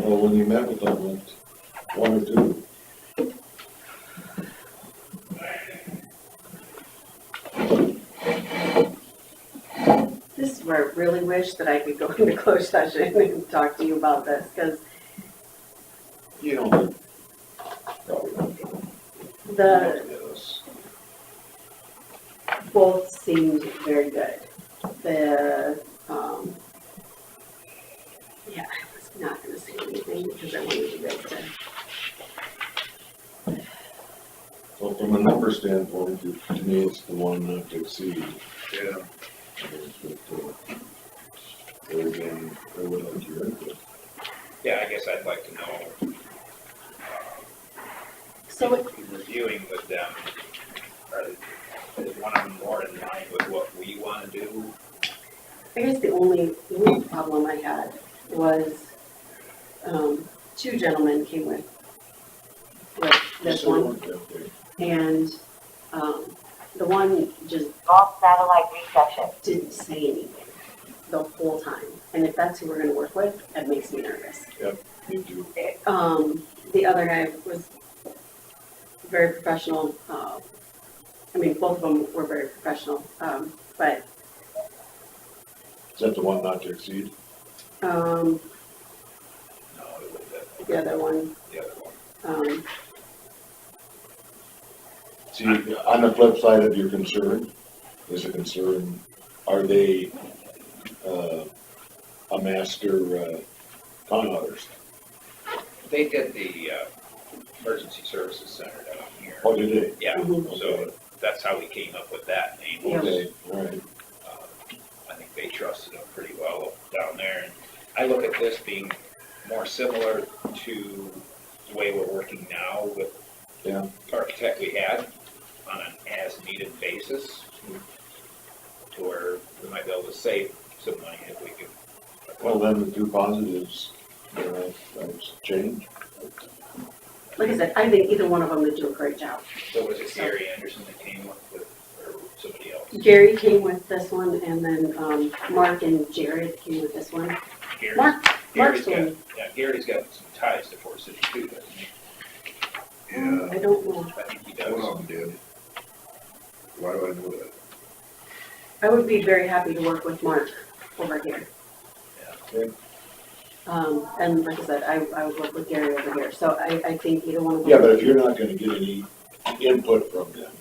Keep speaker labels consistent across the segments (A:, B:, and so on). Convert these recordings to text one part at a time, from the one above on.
A: or when you met with them, like, one or two?
B: This is where I really wish that I could go into closed session and talk to you about this, because
A: You don't. Probably don't. You
B: the,
A: don't get us.
B: both seemed very good. The, um, yeah, I was not gonna say anything because I wanted you guys to,
A: So from a number standpoint, it- to me, it's the one not to exceed.
C: Yeah,
A: I mean, it's with the- There again, I would like your input.
C: yeah, I guess I'd like to know,
B: so it-
C: in reviewing with them, are- is one of them more in line with what we want to do?
B: I guess the only, the only problem I had was, um, two gentlemen came with, with this
A: So,
B: one,
A: okay.
B: and, um, the one just
D: Lost satellite reception.
B: didn't say anything the whole time. And if that's who we're gonna work with, that makes me nervous.
A: Me too.
B: Um, the other guy was very professional, uh, I mean, both of them were very professional, um, but,
A: Is that the one not to exceed?
B: um,
C: No, it was the,
B: the other one,
C: the other one.
B: um,
A: See, on the flip side of your concern, is a concern, are they, uh, a master, uh, con artist?
C: They did the, uh, emergency services center down here.
A: What do they?
C: Yeah,
B: Mhm.
C: so that's how we came up with that name.
B: Yeah.
A: Okay, all right.
C: Um, I think they trusted them pretty well down there. And I look at this being more similar to the way we're working now with
A: Yeah.
C: the architect we had on an as-needed basis, to where we might be able to save some money if we could.
A: Well, then the two positives, you know, that's change.
B: like I said, I think either one of them would do a great job.
C: So was it Gary Anderson that came up with, or somebody else?
B: Gary came with this one, and then, um, Mark and Jared came with this one.
C: Gary-
B: Mark, Mark's
C: Gary's got,
B: one,
C: yeah, Gary's got some ties to Fort City too, doesn't he?
E: Yeah,
B: I don't know,
C: I think he
E: one
C: does.
E: of them did. Why do I know that?
B: I would be very happy to work with Mark over here.
A: Okay.
B: Um, and like I said, I, I would work with Gary over here, so I, I think either one of them.
A: Yeah, but if you're not gonna get any input from them,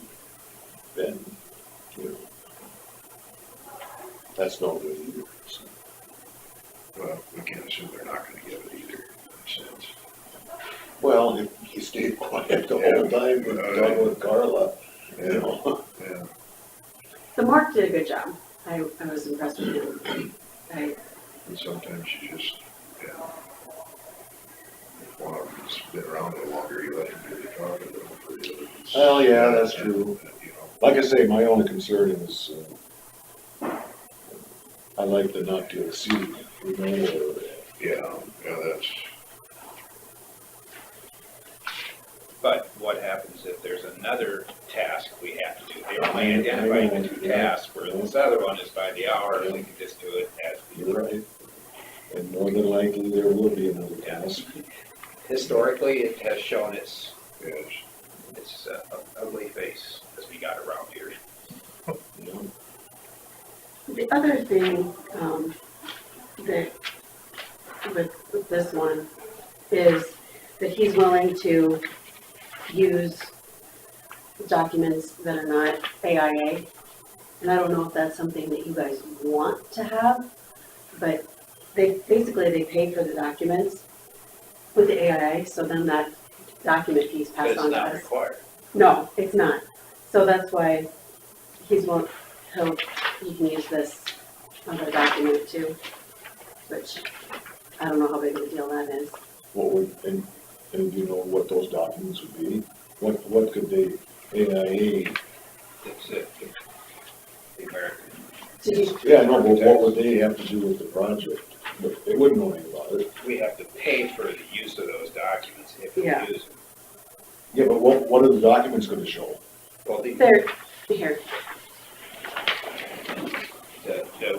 A: then, you know, that's no good either. so.
E: Well, we can't assume they're not gonna give it either, in a sense.
A: Well, if you stay quiet the whole time, and talk with Carla, you know.
E: Yeah,
B: The Mark did a good job. I, I was impressed with him. I,
E: and sometimes you just, yeah. If one of them's been around a little longer, you let him do the talking, but hopefully the other. one's-
A: Well, yeah, that's true.
E: You know,
A: Like I say, my only concern is, uh, I like the not to exceed, you know, or
E: yeah, yeah, that's,
C: But what happens if there's another task we have to do? They only
A: Yeah,
C: identified
A: yeah,
C: the two
A: yeah.
C: tasks, where this other one is by the hour, and we can just do it as we.
A: You're right. And more than likely, there will be another task.
C: Historically, it has shown its,
E: yes,
C: its uh, ugly face as we got around here.
A: you know.
B: the other thing, um, that, with, with this one, is that he's willing to use documents that are not AIA. And I don't know if that's something that you guys want to have, but they, basically, they pay for the documents with the AIA, so then that document piece
C: But
B: passed
C: it's
B: on to us.
C: not required.
B: No, it's not. So that's why he's won't, he'll, you can use this other document too, which I don't know how big of a deal that is.
A: What would, and, and you know what those documents would be? What, what could they, AIA,
C: It's uh, the American.
B: Did you,
A: yeah, no, but what would they have to do with the project? But They wouldn't know anything about it.
C: We have to pay for the use of those documents if we
B: Yeah.
C: use them.
A: Yeah, but what, what are the documents gonna show?
C: Well, the,
B: there, here,
C: the, the